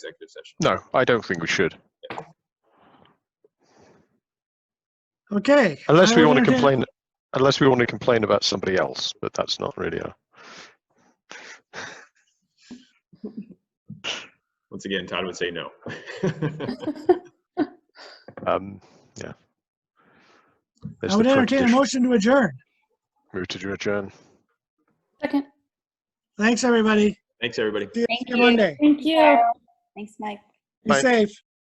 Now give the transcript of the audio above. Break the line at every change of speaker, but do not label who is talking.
executive session.
No, I don't think we should.
Okay.
Unless
Oh, I
we
will
want to
entertain-
complain, unless we want to complain about somebody else, but that's not really a.
Once again, Todd would say no.
Um, yeah. There's
I would
the
entertain a
precondition.
motion to adjourn.
Move to adjourn.
Second.
Thanks, everybody.
Thanks, everybody.
See you
Thank
on
you.
Monday.
Thank you.
Thanks, Mike.
Be
Bye.
safe.